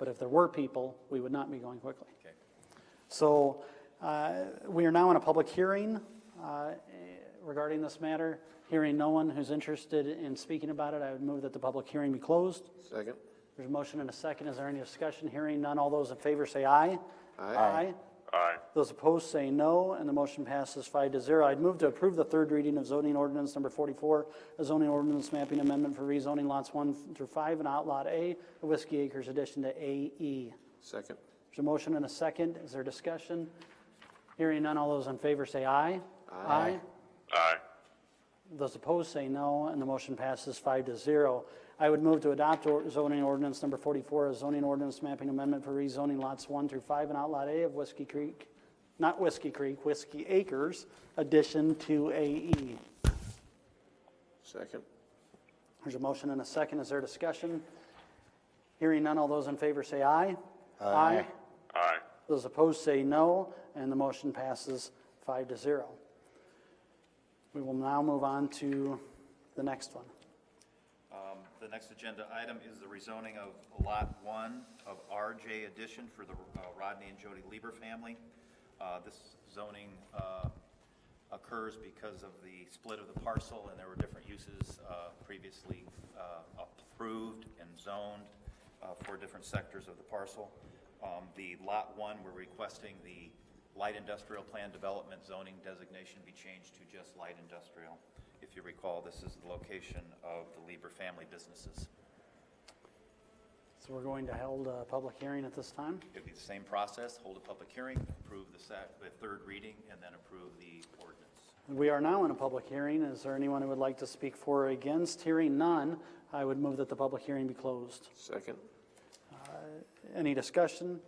If there were people, we would not be going quickly. Okay. So uh, we are now in a public hearing uh, regarding this matter. Hearing no one who's interested in speaking about it, I would move that the public hearing be closed. Second. There's a motion and a second. Is there any discussion? Hearing none. All those in favor say aye. Aye. Aye. Aye. Those opposed say no, and the motion passes five to zero. I'd move to approve the third reading of zoning ordinance number 44, a zoning ordinance mapping amendment for rezoning lots 1 through 5 and outlot A of Whiskey Acres addition to E. AE. Second. There's a motion and a second. Is there discussion? Hearing none, all those in favor say aye. Aye. Aye. Those opposed say no, and the motion passes five to zero. I would move to adopt or- zoning ordinance number 44, a zoning ordinance mapping amendment for rezoning lots 1 through 5 and outlot A of Whiskey Creek, not Whiskey Creek, Whiskey Acres, addition to E. AE. Second. There's a motion and a second. Is there discussion? Hearing none, all those in favor say aye. Aye. Aye. Those opposed say no, and the motion passes five to zero. We will now move on to the next one. Um, The next agenda item is the rezoning of Lot 1 of RJ addition for the uh, Rodney and Jody Lieber family. Uh, This zoning uh, occurs because of the split of the parcel, and there were different uses uh, previously uh, approved and zoned uh, for different sectors of the parcel. Um, The Lot 1, we're requesting the light industrial plan development zoning designation be changed to just light industrial. If you recall, this is the location of the Lieber family businesses. So we're going to hold a public hearing at this time. It'd be the same process, hold a public hearing, approve the sec, the third reading, and then approve the ordinance. We are now in a public hearing. Is there anyone who would like to speak for or against? Hearing none, I would move that the public hearing be closed. Second. Any discussion?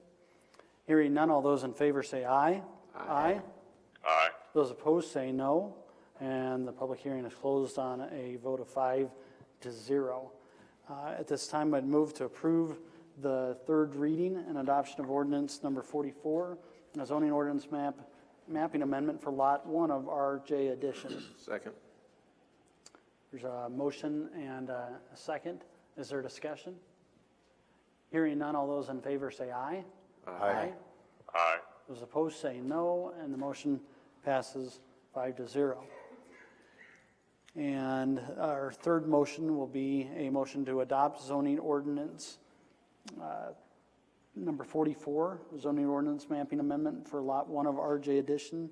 Hearing none, all those in favor say aye. Aye. Aye. Those opposed say no, and the public hearing is closed on a vote of five to zero. Uh, At this time, I'd move to approve the third reading and adoption of ordinance number 44, and a zoning ordinance map, mapping amendment for Lot 1 of RJ addition. Second. There's a motion and a second. Is there discussion? Hearing none, all those in favor say aye. Aye. Aye. Those opposed say no, and the motion passes five to zero. And our third motion will be a motion to adopt zoning ordinance uh, number 44, zoning ordinance mapping amendment for Lot 1 of RJ addition.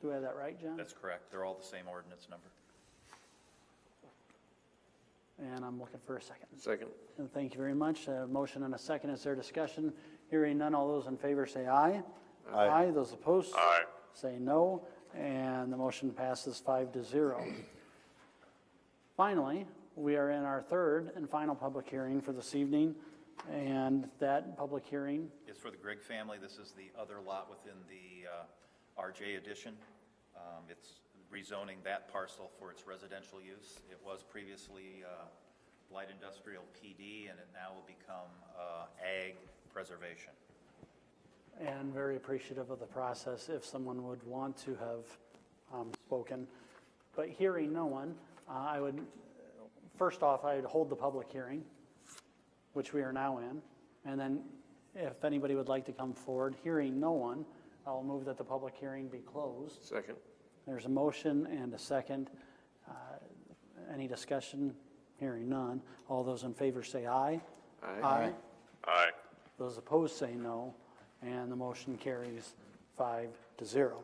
Do I have that right, John? That's correct, they're all the same ordinance number. And I'm looking for a second. Second. And thank you very much. A motion and a second. Is there discussion? Hearing none, all those in favor say aye. Aye. Those opposed? Aye. Say no, and the motion passes five to zero. Finally, we are in our third and final public hearing for this evening, and that public hearing, It's for the Grigg family, this is the other lot within the uh, RJ addition. Um, It's rezoning that parcel for its residential use. It was previously uh, light industrial PD, and it now will become uh, ag preservation. and very appreciative of the process if someone would want to have um, spoken. But hearing no one, uh, I would, first off, I'd hold the public hearing, which we are now in, and then if anybody would like to come forward, hearing no one, I'll move that the public hearing be closed. Second. There's a motion and a second. Uh, Any discussion? Hearing none. All those in favor say aye. Aye. Aye. Those opposed say no, and the motion carries five to zero.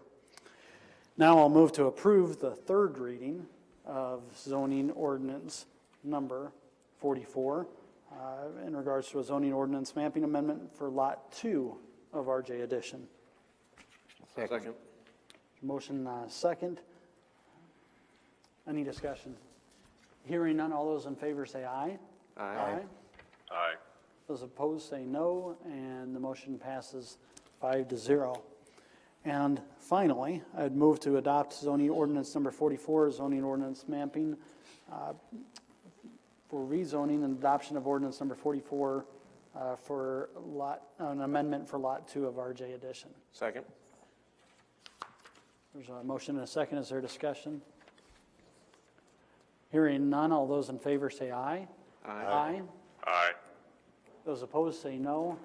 Now I'll move to approve the third reading of zoning ordinance number 44 uh, in regards to a zoning ordinance mapping amendment for Lot 2 of RJ addition. Second. Motion uh, second. Any discussion? Hearing none, all those in favor say aye. Aye. Aye. Those opposed say no, and the motion passes five to zero. And finally, I'd move to adopt zoning ordinance number 44, zoning ordinance mapping uh, for rezoning and adoption of ordinance number 44 uh, for lot, an amendment for Lot 2 of RJ addition. Second. There's a motion and a second. Is there discussion? Hearing none, all those in favor say aye. Aye. Aye. Aye. Those opposed say no,